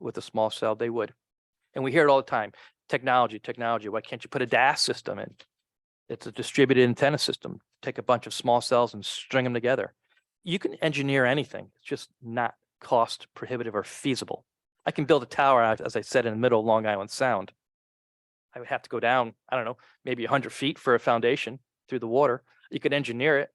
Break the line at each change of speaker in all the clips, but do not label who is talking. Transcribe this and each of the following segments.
with a small cell, they would. And we hear it all the time, technology, technology, why can't you put a DAS system in? It's a distributed antenna system. Take a bunch of small cells and string them together. You can engineer anything. It's just not cost prohibitive or feasible. I can build a tower, out, as I said, in the middle of Long Island Sound. I would have to go down, I don't know, maybe hundred feet for a foundation through the water. You could engineer it.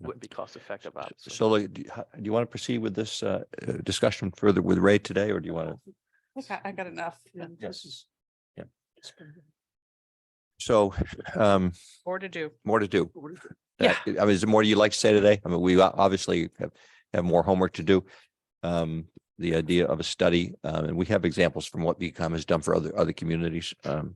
Yeah.
Wouldn't be cost effective, obviously.
So like, do you ho- do you want to proceed with this uh, uh, discussion further with Ray today, or do you want to?
Okay, I got enough.
Yes. Yeah. So um,
More to do.
more to do.
Yeah.
That- I mean, is there more you'd like to say today? I mean, we o- obviously have, have more homework to do. Um, the idea of a study, uh, and we have examples from what VCom has done for other, other communities. Um,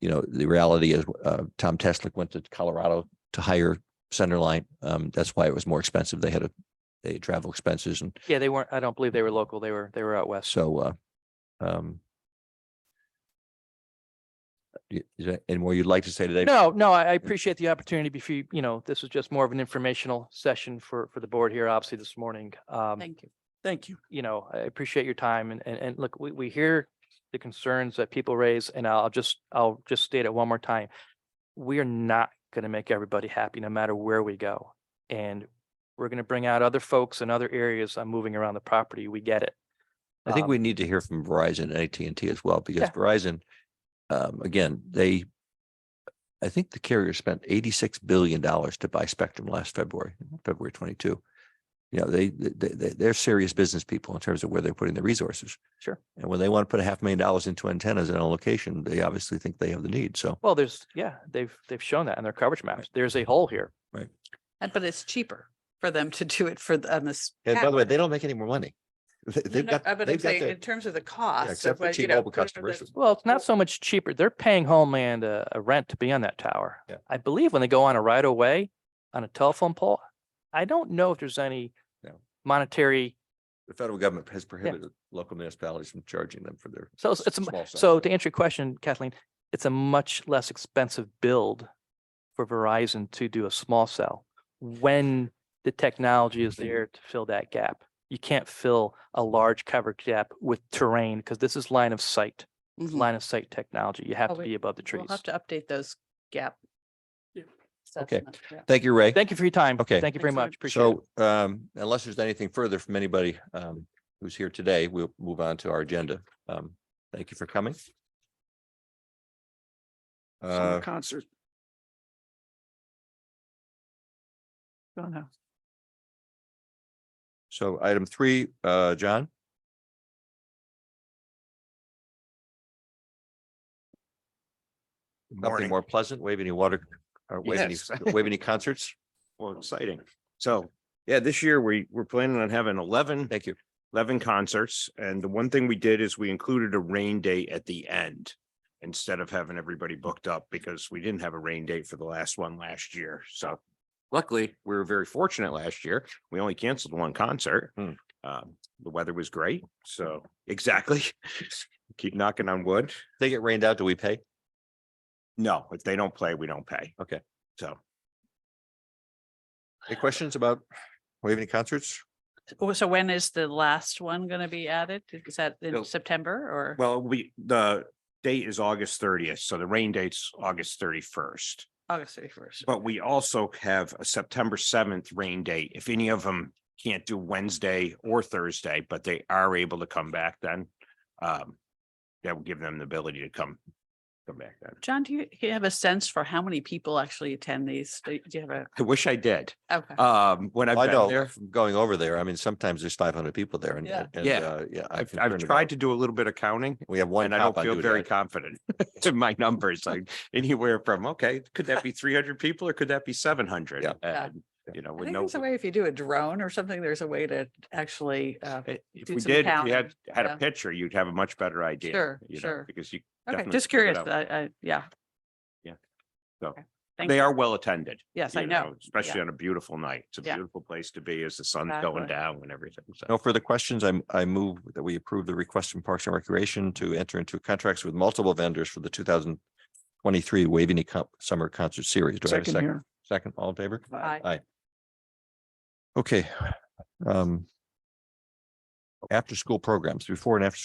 you know, the reality is, uh, Tom Teslick went to Colorado to hire Centerline. Um, that's why it was more expensive. They had a, they had travel expenses and
Yeah, they weren't, I don't believe they were local. They were, they were out west.
so, uh, um, y- is there any more you'd like to say today?
No, no, I I appreciate the opportunity before, you you know, this was just more of an informational session for, for the board here, obviously this morning. Um,
Thank you.
Thank you.
you know, I appreciate your time and, and, and look, we, we hear the concerns that people raise and I'll just, I'll just state it one more time. We are not going to make everybody happy no matter where we go. And we're going to bring out other folks in other areas on moving around the property. We get it.
I think
Um,
we need to hear from Verizon and AT&T as well, because
Yeah.
Verizon, um, again, they, I think the carrier spent eighty-six billion dollars to buy spectrum last February, February twenty-two. You know, they, they, they, they're serious business people in terms of where they're putting their resources.
Sure.
And when they want to put a half million dollars into antennas in a location, they obviously think they have the need. So
Well, there's, yeah, they've, they've shown that in their coverage maps. There's a hole here.
And but it's cheaper for them to do it for the, on this.
And by
cap.
the way, they don't make any more money. They-
No,
They've
no,
got,
uh, But I'm
they've got
saying in
the,
terms of the cost. of
except for
what, you know,
T-Mobile
whatever
customers
the-
is-
Well, it's not so much cheaper. They're paying Homeland a, a rent to be on that tower.
Yeah.
I believe when they go on a right of way on a telephone pole, I don't know if there's any
No.
monetary.
the federal government has prohibited local municipalities from charging them for their.
So it's, it's, a mu-
small cell
so
service.
to answer your question, Kathleen, it's a much less expensive build for Verizon to do a small cell when the technology is there to fill that gap. You can't fill a large coverage gap with terrain because this is line of sight,
Mhm.
line of sight technology. You have
Oh,
to
we-
be above the trees.
We'll have to update those gap.
Okay.
assessments, yeah.
Thank you, Ray.
Thank you for your time.
Okay.
Thank you very
Thanks, Ed.
much. Appreciate it.
So um, unless there's anything further from anybody um, who's here today, we'll move on to our agenda. Um, Thank you for coming.
Summer
Uh,
concert. Don't know.
So item three, uh, John? Nothing
Morning.
more pleasant, wave any water, uh, or wave any,
Yes.
wave any concerts?
Well, exciting. So, yeah, this year we, we're planning on having 11
Thank you.
11 concerts. And the one thing we did is we included a rain date at the end instead of having everybody booked up because we didn't have a rain date for the last one last year. So luckily, we were very fortunate last year. We only canceled one concert.
Hmm.
Um, The weather was great. So exactly. Keep knocking on wood.
They get rained out, do we pay?
No, if they don't play, we don't pay.
Okay.
So
Any questions about wave any concerts?
Oh, So when is the last one going to be added? Is that
No.
in September or?
Well, we, the date is August thirtieth, so the rain date's August thirty-first.
August thirty first.
But we also have a September seventh rain date. If any of them can't do Wednesday or Thursday, but they are able to come back then. Um, that will give them the ability to come, come back then.
John, do you do you have a sense for how many people actually attend these? Do do you have
I wish I did.
a? Okay.
Um, when I've
I
been
know,
there,
from going over there, I mean, sometimes there's five hundred people there and.
Yeah.
and,
Yeah.
uh, Yeah. I'm
I've, I've
concerned about-
tried to do a little bit of counting.
We have one
And I don't
cop on
feel
duty.
very
I-
confident to my numbers, like anywhere from, okay, could that be three hundred people or could that be seven hundred?
Yeah.
Yeah.
You know,
I
with
think
no.
there's a way, if you do a drone or something, there's a way to actually, uh,
i- If
do
we
some
did, if
counting,
you had, had
yeah.
a picture, you'd have a much better idea.
Sure,
you know,
sure.
Because you.
okay,
definitely
just
figure it
curious,
out.
but I, I, yeah.
Yeah. So,
Okay, thank
They
you.
are well attended.
Yes,
you
I know.
Especially on a beautiful night. It's a
Yeah.
beautiful place to be as the sun's
Exactly.
going down and everything. So.
No further questions. I'm, I move that we approve the request from Parks and Recreation to enter into contracts with multiple vendors for the two thousand twenty-three Waveney Comp Summer Concert Series. Do I have a
Second
second?
here.
Second, all in favor?
Bye.
Okay. Um. after-school programs, before and after-school